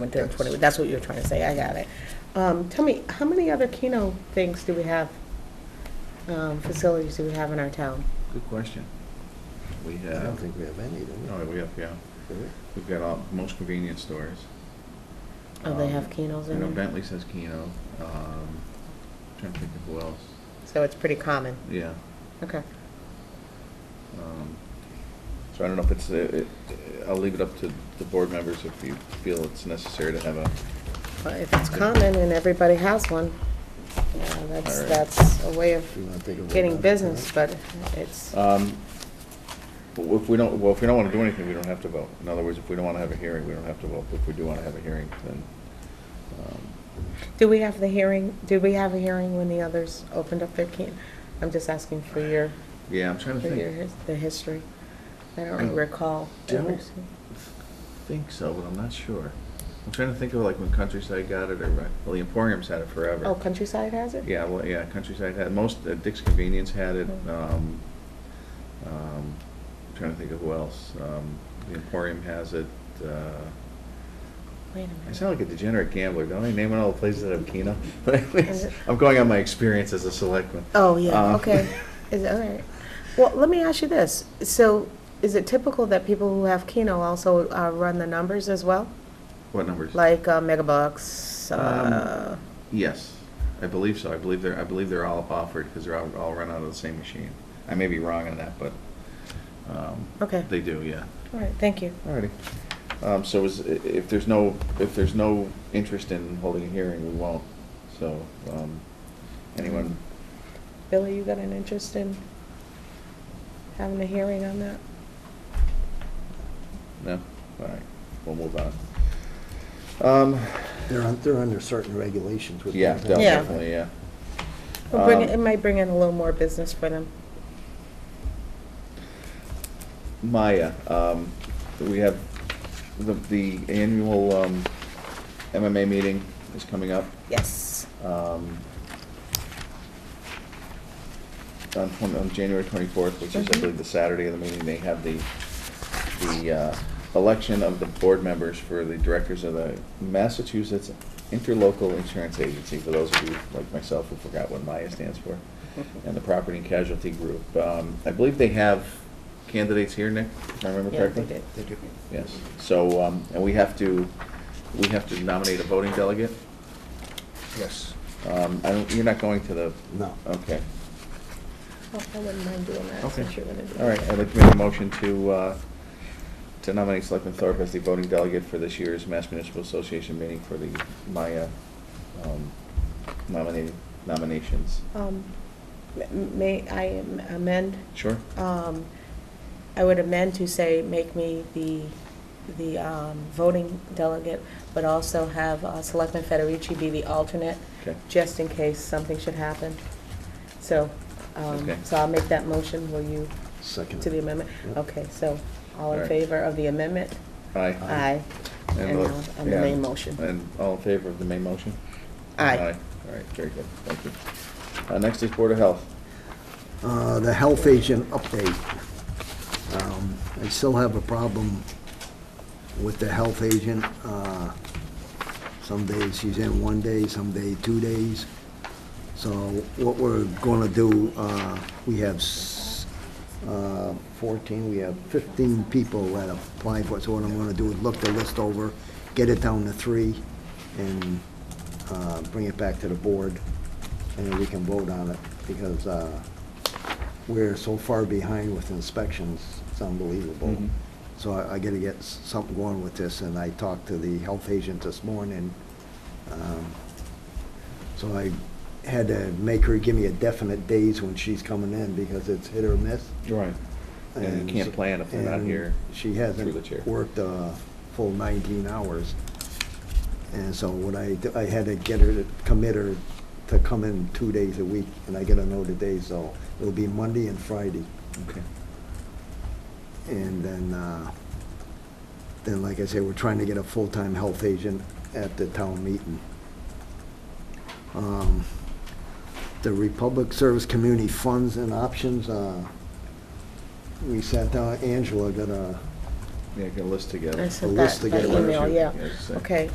Went to 20 that's what you were trying to say, I got it. Um, Tell me, how many other Keno things do we have, um, facilities do we have in our town? Good question. We I don't have, think we have any, do we? oh, we have, yeah, Do we? we've got all, most convenience stores. Oh, they Um, have Kenos You know, in there? Bentley says Keno, um, trying to think of who else, So it's pretty common, yeah. okay. um, So I don't know if it's, uh, it- I'll leave it up to the board members if you feel it's necessary to have a, Well, If it's common and everybody has one, uh, that's, All right. that's a way Do you wanna of take a vote on getting it business, tonight? but it's, um, but if we don't, well, if we don't want to do anything, we don't have to vote. In other words, if we don't want to have a hearing, we don't have to vote. If we do want to have a hearing, then, um, do we have the hearing, did we have a hearing when the others opened up their Keno? I'm just asking for your, yeah, I'm trying to for your, think. his- the history. I I don't recall. don't- ever seeing- Think so, but I'm not sure. I'm trying to think of like when Countryside got it or, well, the Emporium's had it forever. Oh, Countryside has it? Yeah, well, yeah, Countryside had, most, uh, Dick's Convenience had it, Mm. um, um, I'm trying to think of who else, um, the Emporium has it, uh, Wait a I minute. sound like a degenerate gambler, don't I, naming all the places that have Keno? But Is it- anyways, I'm going on my experience as a selectman. Oh, yeah, Um, okay. Is, all right. Well, let me ask you this. So is it typical that people who have Keno also uh, run the numbers as well? What numbers? Like uh, Megabucks? Um, uh, Yes, I believe so, I believe they're, I believe they're all offered, because they're all, all run out of the same machine. I may be wrong on that, but, um, Okay. they do, yeah. All right, thank you. Alrighty. Um, so is, i- if there's no, if there's no interest in holding a hearing, we won't. So, um, anyone? Billy, you got an interest in having a hearing on that? No? Alright, we'll move on. Um, They're, un- they're under certain regulations with. yeah, the- de- Yeah. definitely, yeah. It'll bring- Um, It might bring in a little more business for them. Maya, um, we have, the, the annual, um, MMA meeting is coming up. Yes. um, on, twen- on January twenty-fourth, which is, I Mhm. believe, the Saturday of the meeting, they have the, the, uh, election of the board members for the directors of the Massachusetts Interlocal Insurance Agency, for those of you, like myself, who forgot what MIA stands for, and the Property and Casualty Group. Um, I believe they have candidates here, Nick, if I remember Yeah, correctly? they did. They do. Yes, so, um, and we have to, we have to nominate a voting delegate? Yes. Um, I don't, you're not going to the, No. okay, Well, I wouldn't mind doing that okay. since you're going to do it. All right, I'd like to make a motion to, uh, to nominate Selectman Thorpe as the voting delegate for this year's Mass Municipal Association meeting for the Maya, um, nominating, nominations. Um, m- May I am- amend? Sure? Um, I would amend to say, make me the, the um, voting delegate, but also have uh, Selectman Federici be the alternate, Okay. just in case something should happen. So, um, Okay. so I'll make that motion, will you, Second. to the amendment? Yep. Okay, so, all in Alright. favor of the amendment? Aye. Aye. And look- I'll- and the yeah, main motion. And all in favor of the main motion? Aye. All right, very good, thank you. Uh, next is Board of Health. Uh, the health agent update. Um, I still have a problem with the health agent. Uh, Some days she's in one day, some day two days. So what we're gonna do, uh, we have s- uh, fourteen, we have fifteen people that applied for it. So what I'm gonna do is look the list over, get it down to three, and uh, bring it back to the board, and then we can vote on it, because uh, we're so far behind with inspections, it's unbelievable. Mhm. So I I gotta get s- something going with this, and I talked to the health agent this morning. um, So I had to make her give me a definite days when she's coming in, because it's hit or miss. Right. And you can't plan if they're not and here. She Through the chair. hasn't worked a full 19 hours. And so when I, d- I had to get her to commit her to come in two days a week, and I gotta know the days, so it'll be Monday and Friday. Okay. And then, uh, then like I say, we're trying to get a full-time health agent at the town meeting. Um, The Republic Service Community Funds and Options, uh, we sat down, Angela got a Yeah, get a list together. I sent list that by together. email, yeah. Yes, I- Okay.